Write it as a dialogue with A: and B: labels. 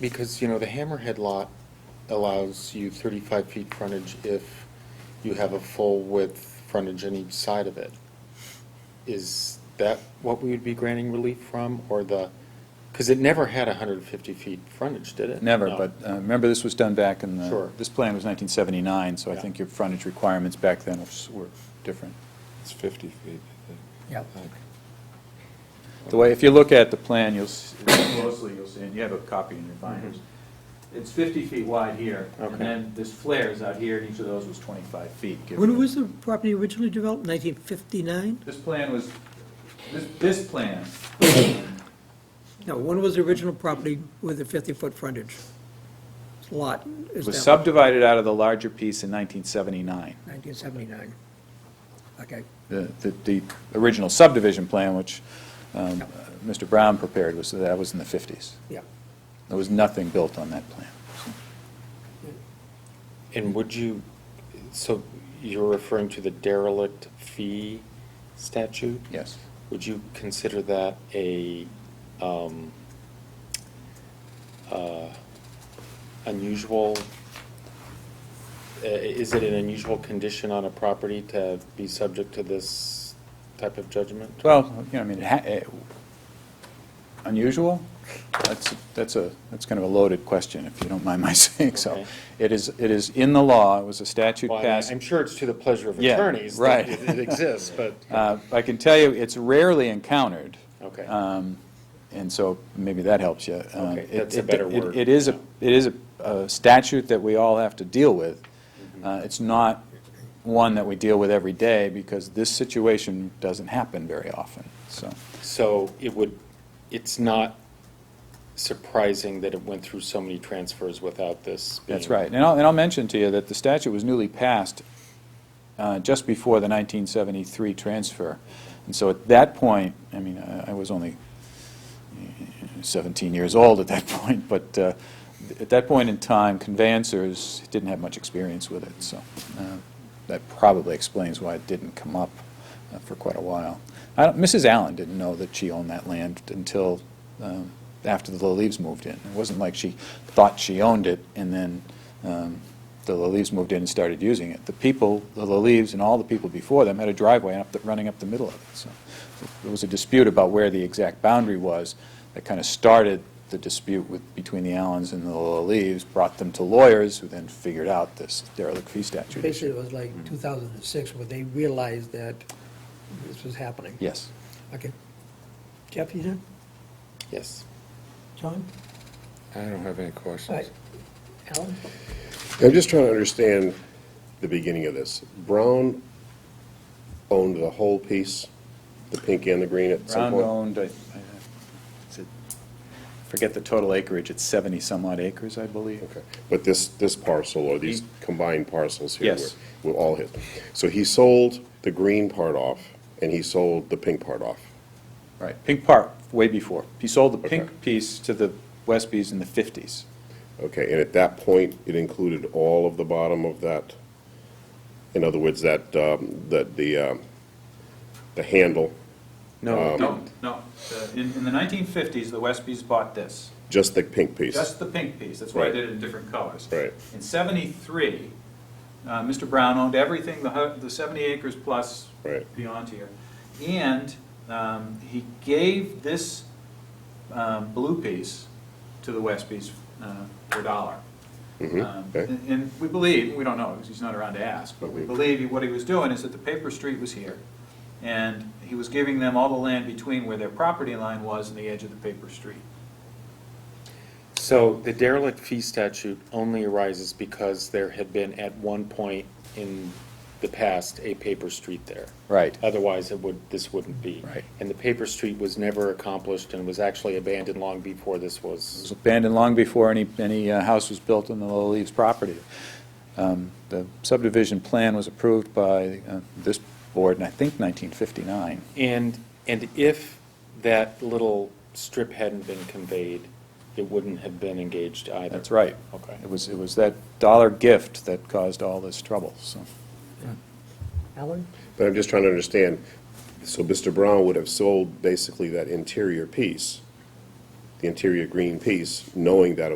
A: Because, you know, the Hammerhead lot allows you thirty-five feet frontage if you have a full width frontage on each side of it. Is that what we would be granting relief from, or the, because it never had hundred and fifty feet frontage, did it?
B: Never,
A: No.
B: but uh, remember, this was done back in the...
A: Sure.
B: This plan was 1979, so I
A: Yeah.
B: think your frontage requirements back then was- were different.
C: It's 50 feet, I
D: Yeah.
C: think. I think.
B: The way, if you look at the plan, you'll, s- closely, you'll see, and you have a copy in your binders. It's 50 feet wide here,
A: Mm-hmm. Okay.
B: and then this flares out here, and each of those was 25 feet. give
D: When
B: or-
D: was the property originally developed, 1959?
B: This plan was, this, this plan,
D: No, when was the original property with the 50-foot frontage? Lot is
B: was
D: down,
B: subdivided out of the larger piece in 1979.
D: 1979. Okay,
B: the, the- the original subdivision plan, which um,
D: Yep.
B: Mr. Brown prepared, was, that was in the 50s.
D: yeah.
B: There was nothing built on that plan.
A: And would you, so you're referring to the derelict fee statute?
B: Yes.
A: Would you consider that a um, uh, unusual, i- is it an unusual condition on a property to be subject to this type of judgment?
B: Well, you know, I mean, it ha- it- unusual, that's, that's a, that's kind of a loaded question, if you don't mind my saying so.
A: Okay.
B: It is, it is in the law, it was a statute
A: Well, I mean,
B: passed.
A: I'm sure it's to the pleasure of
B: Yeah,
A: attorneys
B: right.
A: that it it exists, but,
B: Uh, I can tell you, it's rarely encountered.
A: Okay.
B: Um, And so maybe that helps you. Um,
A: Okay,
B: it-
A: that's a
B: it-
A: better
B: it-
A: word.
B: It is a, it is a- a statute that we all have to deal with.
A: Mm-hmm.
B: Uh, It's not one that we deal with every day, because this situation doesn't happen very often, so.
A: so it would, it's not surprising that it went through so many transfers without this being.
B: That's right. And I'll, and I'll mention to you that the statute was newly passed uh, just before the 1973 transfer. And so at that point, I mean, I I was only 17 years old at that point, but uh, th- at that point in time, conveyancers didn't have much experience with it, so uh, that probably explains why it didn't come up uh, for quite a while. I don't- Mrs. Allen didn't know that she owned that land until um, after the Leaves moved in. It wasn't like she thought she owned it, and then um, the Leaves moved in and started using it. The people, the Leaves and all the people before them had a driveway up the- running up the middle of it, so there was a dispute about where the exact boundary was that kind of started the dispute with, between the Allens and the Leaves, brought them to lawyers, who then figured out this derelict fee statute
D: Basically,
B: issue.
D: it was like
B: Mm-hmm.
D: 2006 where they realized that this was happening.
B: Yes.
D: Okay. Jeff, you done?
A: Yes.
D: John?
C: I don't have any
D: All
C: questions.
D: right. Alan?
E: I'm just trying to understand the beginning of this. Brown owned the whole piece, the pink and the green at
B: Brown
E: some point?
B: owned, I- I- is it- forget the total acreage, it's 70-some-odd acres, I believe.
E: Okay, but this, this parcel or these
B: He-
E: combined parcels here
B: Yes.
E: were, were all his. So he sold the green part off and he sold the pink part off.
B: Right, Pink Park, way before. He sold the
E: Okay.
B: pink piece to the Westbys in the 50s.
E: Okay, and at that point, it included all of the bottom of that, in other words, that, um, that the, um, the handle,
A: No, it
B: No,
A: didn't.
B: no, The- in, in the 1950s, the Westbys bought this,
E: just the pink piece?
B: just the pink piece, that's why I
E: Right.
B: did it in different colors.
E: Right.
B: In 73, uh, Mr. Brown owned everything, the hu- the 70 acres plus
E: Right.
B: beyond here, and um, he gave this um, blue piece to the Westbys uh, for a dollar. Um,
E: Mm-hmm. okay.
B: And and we believe, we don't know, because he's not around to ask, but we
E: Mhm.
B: believe he- what he was doing is that the paper street was here, and he was giving them all the land between where their property line was and the edge of the paper street.
A: So the derelict fee statute only arises because there had been at one point in the past a paper street there.
B: Right.
A: Otherwise, it would, this wouldn't be.
B: Right.
A: And the paper street was never accomplished and was actually abandoned long before this
B: It
A: was.
B: was abandoned long before any, any uh, house was built on the Little Leaves property. Um, The subdivision plan was approved by uh, this board in, I think, 1959.
A: And, and if that little strip hadn't been conveyed, it wouldn't have been engaged either.
B: That's right.
A: Okay.
B: It was, it was that dollar gift that caused all this trouble, so.
D: Alan?
E: But I'm just trying to understand, so Mr. Brown would have sold basically that interior piece, the interior green piece, knowing that it